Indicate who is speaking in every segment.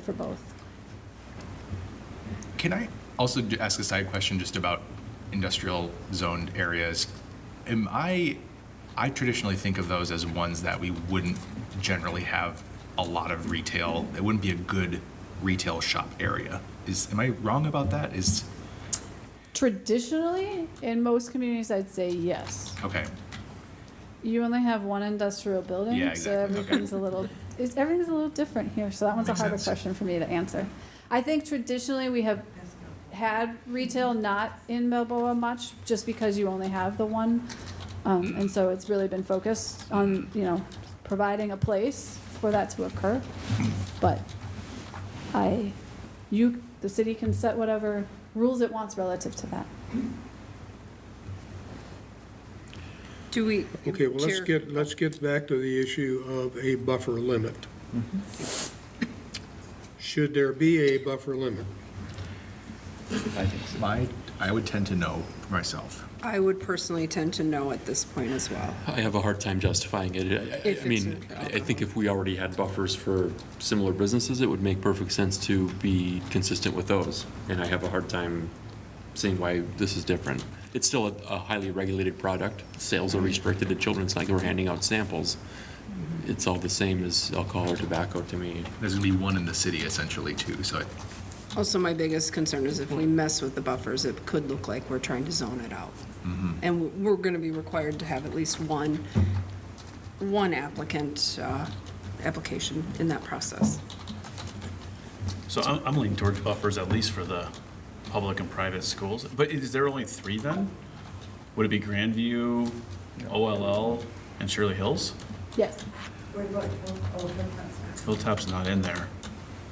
Speaker 1: for both.
Speaker 2: Can I also d- ask a side question just about industrial zoned areas? Am I, I traditionally think of those as ones that we wouldn't generally have a lot of retail. It wouldn't be a good retail shop area. Is, am I wrong about that? Is,
Speaker 1: Traditionally, in most communities, I'd say yes.
Speaker 2: okay,
Speaker 1: You only have one industrial building,
Speaker 2: Yeah,
Speaker 1: so
Speaker 2: exactly. Okay.
Speaker 1: everything's a little it's, everything's a little different here. So that one's
Speaker 2: Makes
Speaker 1: a harder
Speaker 2: sense.
Speaker 1: question for me to answer. I think traditionally we have had retail not in Balboa much, just because you only have the one, um,
Speaker 2: Mm.
Speaker 1: and so it's really been focused on you know providing a place for that to occur.
Speaker 2: Mm-hmm.
Speaker 1: But I, you, the city can set whatever rules it wants relative to that.
Speaker 3: Do we?
Speaker 4: Okay, well, let's
Speaker 3: Chair-
Speaker 4: get, let's get back to the issue of a buffer limit. Should there be a buffer limit?
Speaker 5: I think so.
Speaker 2: my, I would tend to know for myself.
Speaker 3: I would personally tend to no at this point as well.
Speaker 6: I have a hard time justifying it. I- I-
Speaker 3: If
Speaker 6: I mean,
Speaker 3: it's a-
Speaker 6: I I think if we already had buffers for similar businesses, it would make perfect sense to be consistent with those. And I have a hard time seeing why this is different. It's still a a highly regulated product. Sales are restricted to children. It's not like we're handing out samples. It's all the same as alcohol or tobacco to me.
Speaker 2: There's gonna be one in the city essentially too, so I-
Speaker 3: Also, my biggest concern is if we mess with the buffers, it could look like we're trying to zone it out. And we're going to be required to have at least one, one applicant, uh, application in that process.
Speaker 7: So I'm, I'm leaning towards buffers at least for the public and private schools. But is there only three then? Would it be Grandview, OLL, and Shirley Hills?
Speaker 1: Yes,
Speaker 7: Hilltop's not in there.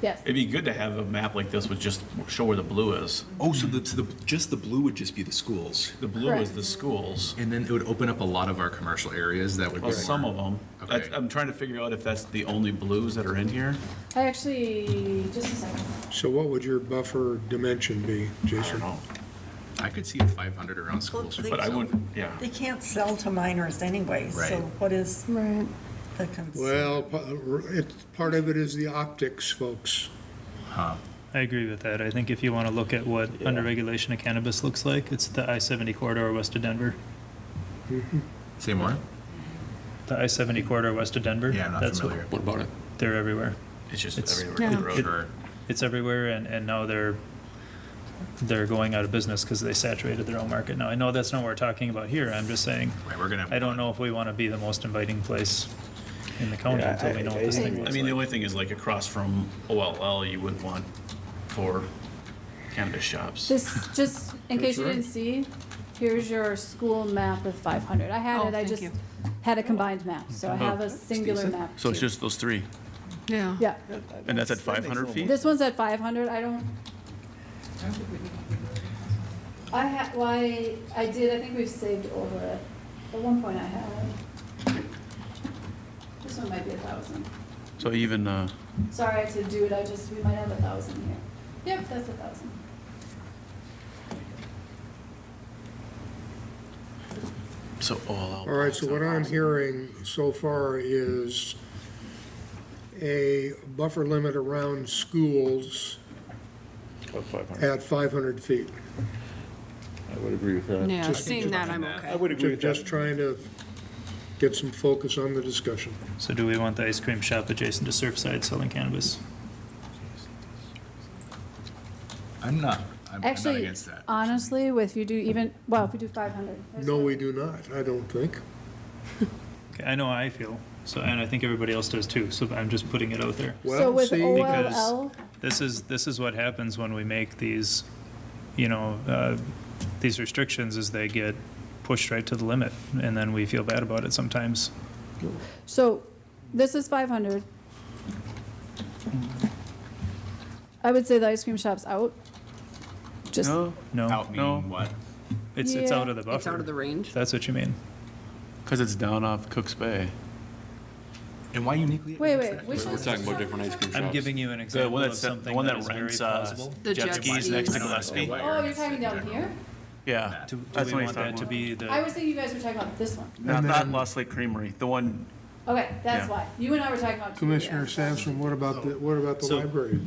Speaker 1: yes.
Speaker 7: It'd be good to have a map like this with just show where the blue is.
Speaker 2: Oh, so the, so the, just the blue would just be the schools?
Speaker 7: The blue is the
Speaker 1: Correct.
Speaker 7: schools,
Speaker 2: And then it would open up a lot of our commercial areas that would be
Speaker 7: well, some
Speaker 2: more-
Speaker 7: of them. That's-
Speaker 2: Okay.
Speaker 7: I'm trying to figure out if that's the only blues that are in here.
Speaker 1: I actually, just a second.
Speaker 4: So what would your buffer dimension be,
Speaker 7: I
Speaker 4: Jason?
Speaker 7: don't know,
Speaker 2: I could see a 500 around schools.
Speaker 8: they-
Speaker 7: but I wouldn't, yeah.
Speaker 8: They can't sell to minors anyway, so
Speaker 2: Right.
Speaker 8: what is
Speaker 1: Right.
Speaker 8: the concern?
Speaker 4: Well, pa- it, part of it is the optics, folks.
Speaker 9: I agree with that. I think if you want to look at what under regulation of cannabis looks like, it's the I 70 corridor west of Denver.
Speaker 2: Say more?
Speaker 9: The I 70 corridor west of Denver.
Speaker 2: Yeah, I'm not
Speaker 9: that's
Speaker 2: familiar.
Speaker 6: What about it?
Speaker 9: What, they're everywhere.
Speaker 7: It's just
Speaker 9: It's-
Speaker 7: everywhere. in the road.
Speaker 2: Sure.
Speaker 9: It's everywhere, and, and now they're they're going out of business because they saturated their own market. Now, I know that's not what we're talking about here. I'm just saying,
Speaker 2: Right, we're gonna have
Speaker 9: I don't
Speaker 2: one.
Speaker 9: know if we want to be the most inviting place in the county until we know what this thing
Speaker 7: I
Speaker 9: looks
Speaker 7: mean, the
Speaker 9: like.
Speaker 7: only thing is like across from OLL, you wouldn't want for cannabis shops.
Speaker 1: This, just in case you didn't see, here's your school map with 500. I
Speaker 3: Oh,
Speaker 1: had it, I
Speaker 3: thank
Speaker 1: just
Speaker 3: you.
Speaker 1: had a combined map, so I have a singular map.
Speaker 10: So it's
Speaker 1: too.
Speaker 10: just those three,
Speaker 3: Yeah.
Speaker 1: Yeah,
Speaker 10: and that's at 500 feet?
Speaker 1: this one's at 500, I don't. I had, well, I, I did, I think we've saved over it. At one point I had. This one might be a 1,000.
Speaker 10: So even, uh,
Speaker 1: Sorry to do it, I just, we might have a 1,000 here. Yep, that's a 1,000.
Speaker 10: so OLL.
Speaker 5: Oh,
Speaker 4: All right, so what I'm hearing so far is a buffer limit around schools
Speaker 5: About 500.
Speaker 4: at 500 feet.
Speaker 5: I would agree with that.
Speaker 3: Yeah, seeing that, I'm
Speaker 5: I
Speaker 3: okay.
Speaker 5: would agree with
Speaker 4: Just
Speaker 5: that.
Speaker 4: trying to get some focus on the discussion.
Speaker 9: So, do we want the ice cream shop adjacent to Surfside selling cannabis?
Speaker 2: I'm not, I'm I'm not
Speaker 1: Actually,
Speaker 2: against that.
Speaker 1: honestly, with you do even, well, if we do 500. there's
Speaker 4: No, we do not, I don't think.
Speaker 9: Okay, I know how I feel. So, and I think everybody else does too. So, I'm just putting it out there.
Speaker 1: So
Speaker 4: Well,
Speaker 1: with
Speaker 4: see-
Speaker 1: OLL,
Speaker 9: this is this is what happens when we make these, you know, uh, these restrictions is they get pushed right to the limit, and then we feel bad about it sometimes.
Speaker 1: so this is 500. I would say the ice cream shop's out. Just,
Speaker 10: No,
Speaker 9: No,
Speaker 2: Out
Speaker 10: No.
Speaker 2: meaning what?
Speaker 9: it's it's
Speaker 1: Yeah.
Speaker 9: out of the buffer.
Speaker 3: It's out of the range.
Speaker 9: That's what you mean.
Speaker 10: because it's down off Cook's Bay.
Speaker 2: And why uniquely?
Speaker 1: wait,
Speaker 2: against
Speaker 1: wait,
Speaker 2: that?
Speaker 1: we
Speaker 6: We're
Speaker 1: should.
Speaker 6: talking about different ice cream shops.
Speaker 9: I'm giving you an
Speaker 10: The
Speaker 9: example
Speaker 10: one
Speaker 9: of
Speaker 10: that's, the
Speaker 9: something
Speaker 10: one that
Speaker 9: is very
Speaker 10: rents uh,
Speaker 9: plausible.
Speaker 3: The
Speaker 10: jet
Speaker 3: jet
Speaker 10: skis next to
Speaker 3: skis.
Speaker 10: Gillespie.
Speaker 2: Why
Speaker 1: Oh,
Speaker 2: are
Speaker 1: you're
Speaker 2: you
Speaker 1: talking down
Speaker 2: general?
Speaker 1: here?
Speaker 10: Yeah.
Speaker 9: Do, do
Speaker 10: That's what
Speaker 9: we want
Speaker 10: he's
Speaker 9: that
Speaker 10: talking
Speaker 9: to
Speaker 10: about.
Speaker 9: be the
Speaker 1: I was thinking you guys were talking about this one.
Speaker 10: Not, not Lost Lake Creamery, the one,
Speaker 1: Okay, that's
Speaker 10: Yeah.
Speaker 1: why. You and I were talking about. two.
Speaker 4: Commissioner Sampson, what about the, what about the
Speaker 9: So-
Speaker 4: library?